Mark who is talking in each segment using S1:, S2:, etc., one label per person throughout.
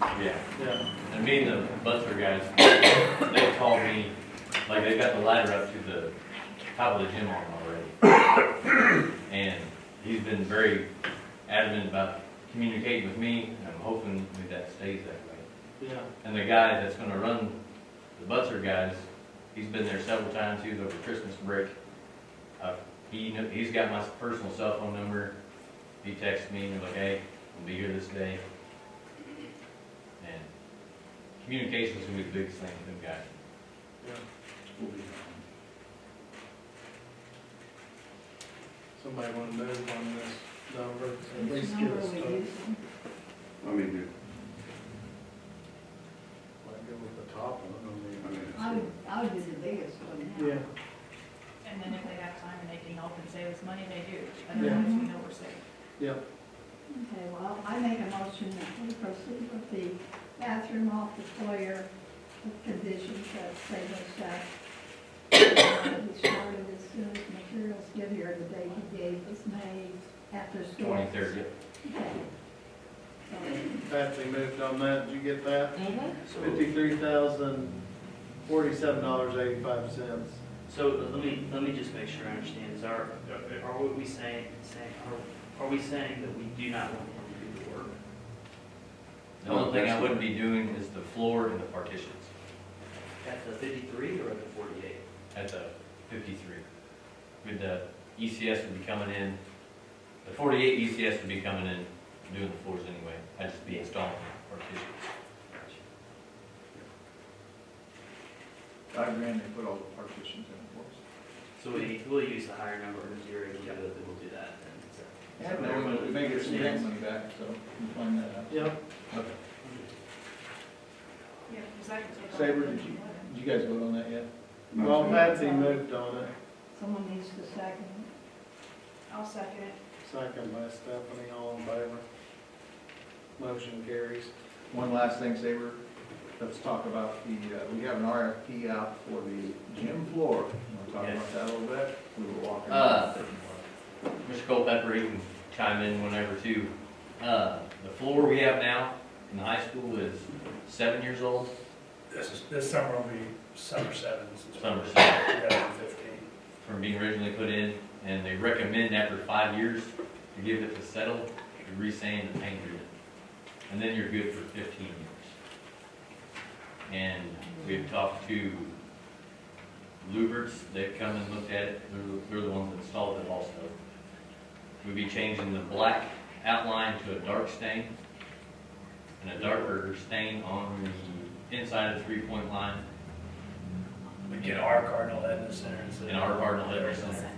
S1: Yeah,
S2: Yeah,
S1: and me and the Buster guys, they called me, like, they got the ladder up to the top of the gym on already. And he's been very adamant about communicating with me, and I'm hoping that that stays that way.
S2: yeah,
S1: And the guy that's gonna run the Buster guys, he's been there several times, he was over Christmas break. Uh, he, kn- he's got my personal cell phone number, he texts me, and he's like, hey, I'll be here this day. And communication's gonna be the biggest thing with them guys.
S2: yeah. Somebody wanna move on this number, at least give us,
S3: Number
S2: a-
S3: we
S2: like,
S3: use.
S4: I mean,
S2: go with the top
S4: I
S2: one,
S4: mean, it's-
S3: I would, I would be the biggest
S2: I
S3: one now.
S2: mean. Yeah,
S5: And then if they have time and they can help and save us money, they do. Otherwise, we know we're safe.
S2: yeah,
S3: Okay, well, I make a motion that we proceed with the bathroom off the foyer with conditions that say no sex. And Be started as soon as materials get here, the day he gave was made after school.
S1: Twenty-third,
S3: Okay. So,
S2: Patsy moved on that, did you get that?
S6: Mhm.
S2: Mm-hmm. Fifty-three thousand, forty-seven dollars, eighty-five cents.
S7: So let me, let me just make sure I understand, is our, uh, are we saying, saying, are, are we saying that we do not want him to do the work?
S1: the only thing I wouldn't be doing is the floor and the partitions
S7: At the fifty-three or at the forty-eight?
S1: at the fifty-three. With the ECS would be coming in, the forty-eight ECS would be coming in, doing the floors anyway, I'd just be installing partitions.
S8: Five grand, they put all the partitions in, of course.
S7: So we, we'll use the higher number in theory, we'll do, it, then we'll do that. then. So-
S8: Yeah,
S7: so
S8: but we may get some grant
S7: understands.
S8: money back, so we can find that out.
S2: Yep,
S5: Yeah, because I can take.
S8: Saber, did you, did you guys vote on that yet?
S2: well, Patsy moved on it,
S3: Someone needs to second.
S5: I'll second it.
S2: second by Stephanie, all in favor. Motion carries.
S8: One last thing, Saber, let's talk about the, uh, we have an RFP out for the gym floor. You wanna talk about
S1: Yes.
S8: that a little bit? We were walking.
S1: Uh, Mr. Culpepper, you can chime in whenever too. Uh, the floor we have now in the high school is seven years old,
S9: This is, this summer will be summer sevens.
S1: Summer seven.
S9: Two thousand fifteen.
S1: from being originally put in, and they recommend after five years to give it to settle, to re-sand and paint it. And then you're good for fifteen years. And we've talked to Luberts, they've come and looked at it, they're, they're the ones that installed it also. We'd be changing the black outline to a dark stain, and a darker stain on the inside of the three-point line,
S9: We get our Cardinal head in the center. instead
S1: and our
S9: of-
S1: garden head in center.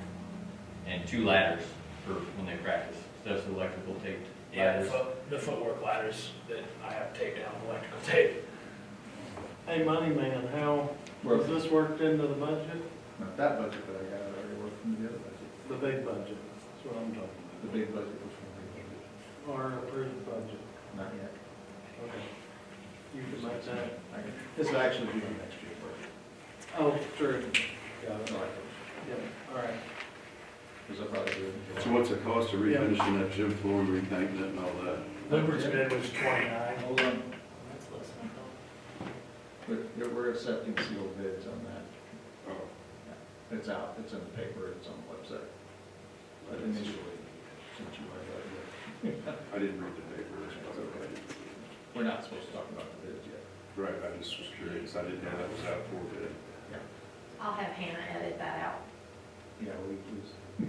S1: and two ladders for when they practice. That's electrical taped
S9: Yeah, the
S1: ladders.
S9: foot, the footwork ladders that I have taped down with electrical tape.
S2: Hey, money man, how,
S8: Well,
S2: was this worked into the budget?
S8: Not that budget, but I got it already worked from the other budget,
S2: The big budget, that's what I'm talking
S8: the big budget, which one?
S2: about, or approved budget.
S8: Not yet.
S2: Okay. You can make that,
S8: I can- This will actually be the next year's budget.
S2: oh, true, got it,
S8: All right.
S2: yeah, all right.
S8: Because I probably do it in July.
S4: So what's the cost of refinishing that gym floor and repainting it and all that?
S9: Lubert's bid was twenty-nine.
S8: Hold on,
S7: That's less than I
S8: we're, we're accepting sealed bids on that.
S4: Oh,
S8: It's out, it's in the paper, it's on the website. But initially, since you are,
S4: I didn't read the paper, that's probably
S8: we're not supposed to talk about the bids yet.
S4: right. Right, I just was curious, I didn't know that was out for bid.
S6: I'll have Hannah edit that out.
S8: Yeah, we, we,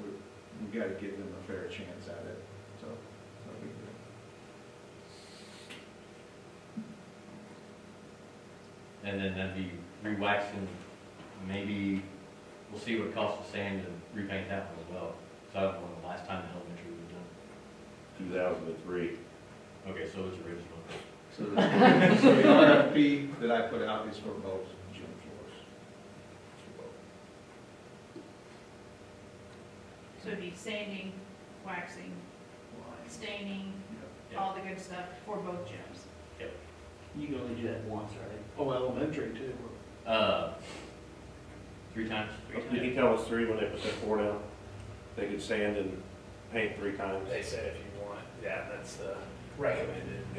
S8: we, we gotta give them a fair chance at it, so. so we do.
S1: And then that'd be re-waxing, maybe, we'll see what it costs to sand and repaint that one as well. So I don't know when the last time the elementary was done.
S4: Two thousand and three.
S1: Okay, so it's original.
S8: So the, so the RFP that I put out is for both gym floors. For both.
S5: So it'd be sanding, waxing,
S8: Lines,
S5: staining,
S8: you know.
S5: all the good stuff for both gyms.
S7: know. You can only do that once, right?
S2: Oh, elementary too.
S1: Uh, three times?
S10: Did he tell us three when they put that floor down? They could sand and paint three times?
S9: They said if you want, yeah, that's the recommended